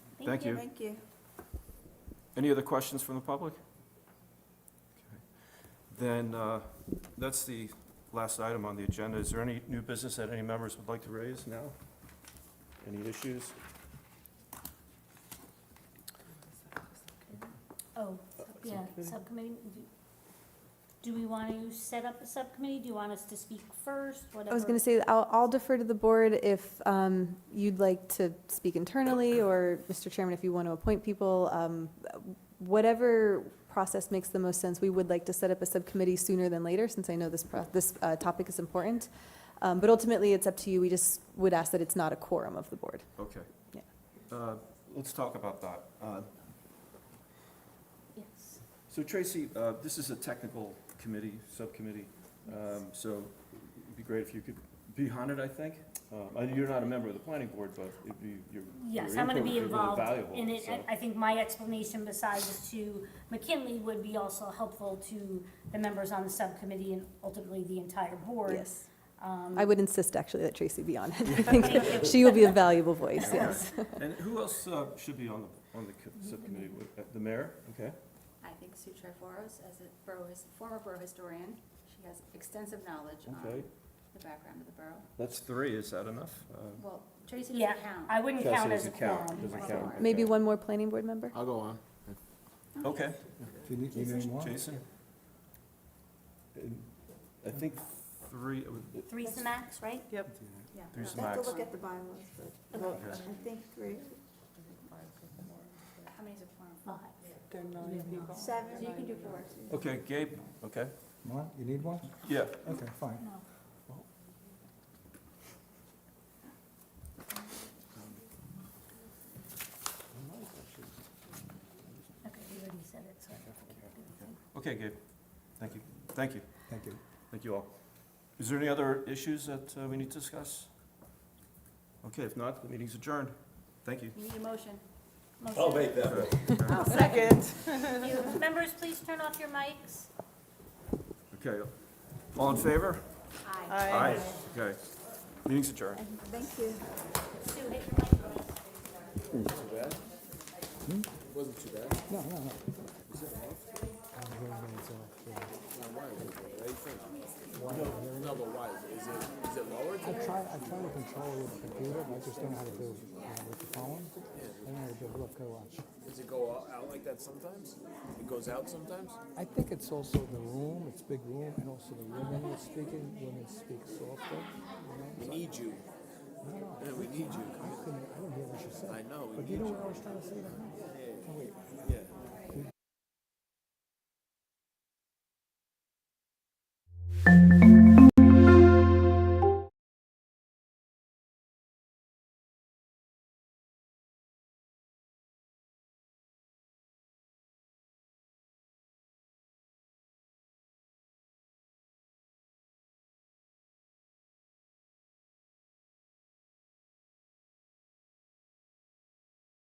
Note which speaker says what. Speaker 1: Thank you.
Speaker 2: Thank you.
Speaker 1: Any other questions from the public? Okay. Then, uh, that's the last item on the agenda. Is there any new business that any members would like to raise now? Any issues?
Speaker 3: Oh, yeah, subcommittee. Do we want to set up a subcommittee? Do you want us to speak first, whatever?
Speaker 4: I was going to say, I'll, I'll defer to the board if um, you'd like to speak internally, or, Mr. Chairman, if you want to appoint people. um, Whatever process makes the most sense, we would like to set up a subcommittee sooner than later, since I know this, pro- this uh, topic is important. Um, But ultimately, it's up to you. We just would ask that it's not a quorum of the board.
Speaker 1: Okay.
Speaker 4: Yeah.
Speaker 1: Uh, Let's talk about that. Uh,
Speaker 3: Yes.
Speaker 1: So Tracy, uh, this is a technical committee, subcommittee, um, so it'd be great if you could be on it, I think. Um, I- You're not a member of the planning board, but it'd be, your
Speaker 3: Yes,
Speaker 1: your
Speaker 3: I'm gonna
Speaker 1: input
Speaker 3: be
Speaker 1: would really
Speaker 3: involved
Speaker 1: valuable,
Speaker 3: in it,
Speaker 1: so.
Speaker 3: and I think my explanation besides to McKinley would be also helpful to the members on the subcommittee and ultimately the entire board.
Speaker 4: Yes.
Speaker 3: Um,
Speaker 4: I would insist, actually, that Tracy be on it. I think she will be a valuable voice, yes.
Speaker 1: And who else uh, should be on the, on the co- subcommittee? Would-
Speaker 3: Mm-hmm.
Speaker 1: uh, The mayor? Okay.
Speaker 5: I think Sue Triforos, as a borough, his- former borough historian, she has extensive knowledge
Speaker 3: Uh,
Speaker 1: Okay.
Speaker 5: on the background of the borough.
Speaker 1: That's three, is that enough? Uh,
Speaker 5: Well, Tracy
Speaker 3: Yeah,
Speaker 5: doesn't count.
Speaker 3: I wouldn't
Speaker 1: Chelsea
Speaker 3: count as a
Speaker 1: doesn't count,
Speaker 3: quorum.
Speaker 1: doesn't
Speaker 5: right.
Speaker 1: count,
Speaker 4: Maybe
Speaker 1: okay.
Speaker 4: one more planning board member?
Speaker 6: I'll go on.
Speaker 1: Okay,
Speaker 6: If you need, you need more.
Speaker 1: Jason? And I think three, uh,
Speaker 3: Three's the max, right?
Speaker 5: Yeah.
Speaker 1: There's
Speaker 2: I
Speaker 1: Max.
Speaker 2: have to look at the bylaws, but
Speaker 1: Okay.
Speaker 2: I think three,
Speaker 5: How many is a quorum?
Speaker 3: Five.
Speaker 2: seven.
Speaker 5: So you can do four.
Speaker 1: okay, Gabe, okay,
Speaker 6: More? You need one?
Speaker 1: yeah.
Speaker 6: Okay, fine.
Speaker 3: No. Okay, you already said it, so.
Speaker 1: Okay, Gabe, thank you, thank you.
Speaker 6: Thank you.
Speaker 1: Thank you all. Is there any other issues that uh, we need to discuss? Okay, if not, the meeting's adjourned. Thank you.
Speaker 5: You need a motion.
Speaker 3: Motion.
Speaker 2: Second.
Speaker 3: Thank you. Members, please turn off your mics.
Speaker 1: Okay, all in favor?
Speaker 5: Aye.
Speaker 1: Aye. Okay, meeting's adjourned.
Speaker 2: Thank you.
Speaker 3: Sue, hit your mic.
Speaker 6: No, no, no. I try, I try to control it with the computer, but I just don't know how to do it you know, with the phone. I don't know how to do it. Look, go watch.
Speaker 7: Does it go out, out like that sometimes? It goes out sometimes?
Speaker 6: I think it's also the room, it's big room, and also the women are speaking, women speak softer.
Speaker 7: We
Speaker 6: You know?
Speaker 7: need you. Yeah, we need you.
Speaker 6: I couldn't, I don't hear what you said.
Speaker 7: I know, we
Speaker 6: But
Speaker 7: need
Speaker 6: you know
Speaker 7: you.
Speaker 6: what I was trying to say? that night? Oh, wait.
Speaker 7: Yeah.
Speaker 6: We-